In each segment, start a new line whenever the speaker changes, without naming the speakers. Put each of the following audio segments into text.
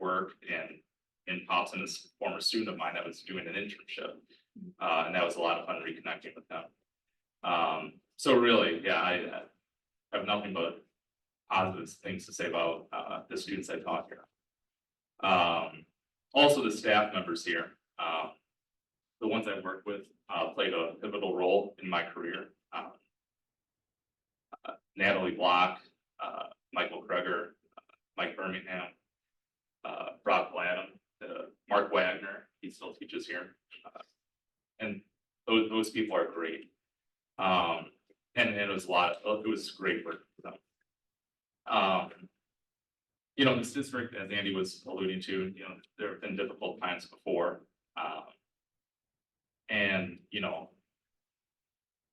work and in Potsdam, this former student of mine that was doing an internship. Uh, and that was a lot of fun reconnecting with them. Um, so really, yeah, I uh, have nothing but positive things to say about, uh, the students I taught here. Um, also the staff members here, um, the ones I've worked with, uh, played a pivotal role in my career. Um, uh, Natalie Block, uh, Michael Kreger, uh, Mike Birmingham, uh, Brock Gladden, uh, Mark Wagner, he still teaches here. Uh, And those, those people are great. Um, and and it was a lot, it was great work for them. Um, you know, this district, as Andy was alluding to, you know, there have been difficult times before. Um, and, you know,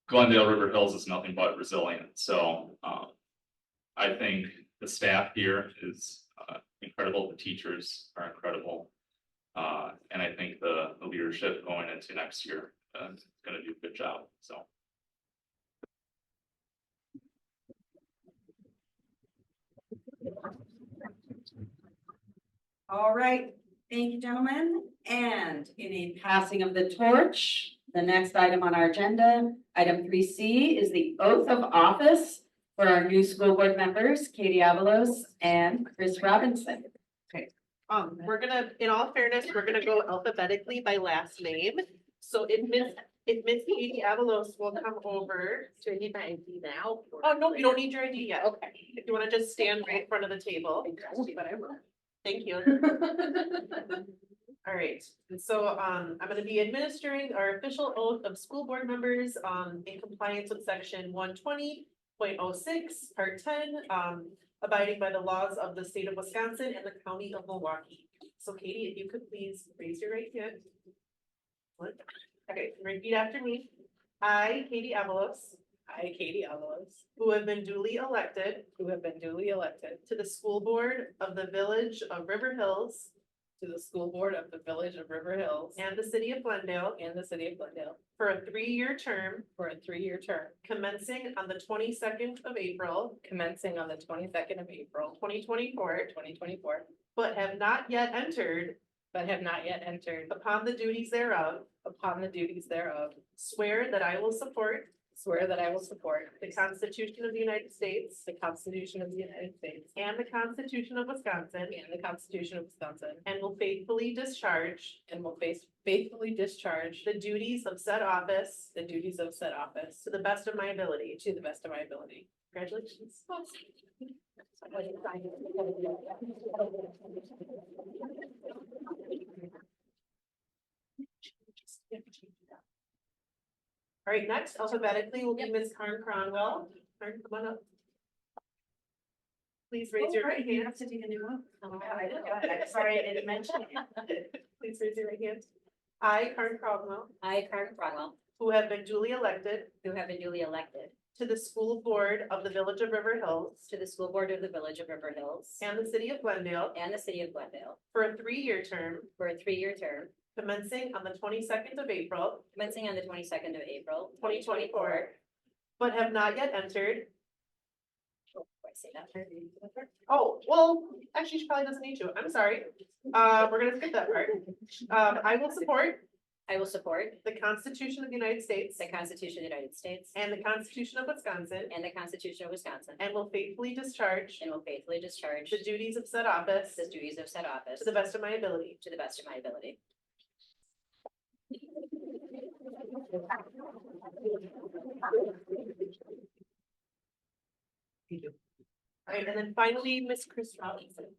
Glendale River Hills is nothing but resilient. So, um, I think the staff here is, uh, incredible. The teachers are incredible. Uh, and I think the, the leadership going into next year, uh, is gonna do a good job. So,
All right, thank you, gentlemen. And in a passing of the torch, the next item on our agenda, item three C is the oath of office for our new school board members, Katie Avalos and Chris Robinson.
Um, we're gonna, in all fairness, we're gonna go alphabetically by last name. So if Miss, if Miss Katie Avalos will come over.
Do I need my ID now?
Oh, no, you don't need your ID yet.
Okay.
If you wanna just stand right in front of the table.
But I will.
Thank you. All right, and so um I'm gonna be administering our official oath of school board members um in compliance with section one twenty point oh six, part ten, um abiding by the laws of the state of Wisconsin and the county of Milwaukee. So Katie, if you could please raise your right hand. What? Okay, repeat after me. I, Katie Avalos. I, Katie Avalos. Who have been duly elected. Who have been duly elected. To the school board of the village of River Hills. To the school board of the village of River Hills. And the city of Glendale. And the city of Glendale. For a three-year term. For a three-year term. Commencing on the twenty-second of April. Commencing on the twenty-second of April. Twenty twenty-four. Twenty twenty-four. But have not yet entered. But have not yet entered. Upon the duties thereof. Upon the duties thereof. Swear that I will support. Swear that I will support. The Constitution of the United States. The Constitution of the United States. And the Constitution of Wisconsin. And the Constitution of Wisconsin. And will faithfully discharge. And will faithfully discharge. The duties of said office. The duties of said office. To the best of my ability. To the best of my ability. Congratulations. All right, next alphabetically will be Ms. Karen Cronwell. Karen, come on up. Please raise your right hand.
to do the new one.
I forgot. I'm sorry, I didn't mention Please raise your right hand. I, Karen Cronwell,
I, Karen Cromwell,
who have been duly elected
who have been duly elected
to the school board of the Village of River Hills
to the school board of the village of River Hills
and the city of Glendale
and the city of Glendale
for a three-year term
for a three-year term
commencing on the twenty-second of April,
commencing on the twenty-second of April.
twenty twenty-four, but have not yet entered.
Oh, do I say that part?
Oh, well, actually, she probably doesn't need to. I'm sorry. Uh, we're gonna skip that part. Um, I will support
I will support
the Constitution of the United States
the Constitution of the United States
and the Constitution of Wisconsin
and the Constitution of Wisconsin
and will faithfully discharge
and will faithfully discharge
the duties of said office
the duties of said office
to the best of my ability.
to the best of my ability.
All right, and then finally, Miss Chris Robinson.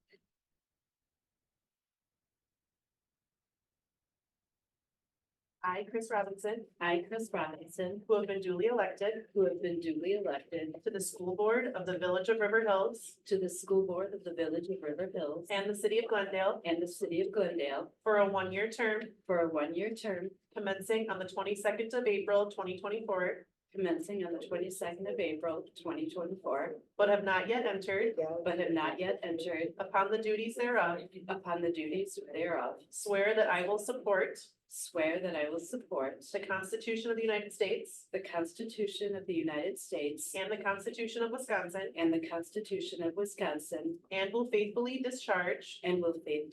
I, Chris Robinson,
I, Chris Robinson,
who have been duly elected
who have been duly elected
to the school board of the Village of River Hills
to the school board of the village of River Hills
and the city of Glendale
and the city of Glendale
for a one-year term
for a one-year term
commencing on the twenty-second of April, twenty twenty-four,
commencing on the twenty-second of April, twenty twenty-four,
but have not yet entered
but have not yet entered
upon the duties thereof.
upon the duties thereof.
Swear that I will support
Swear that I will support
the Constitution of the United States
the Constitution of the United States
and the Constitution of Wisconsin
and the Constitution of Wisconsin
and will faithfully discharge
and will faithfully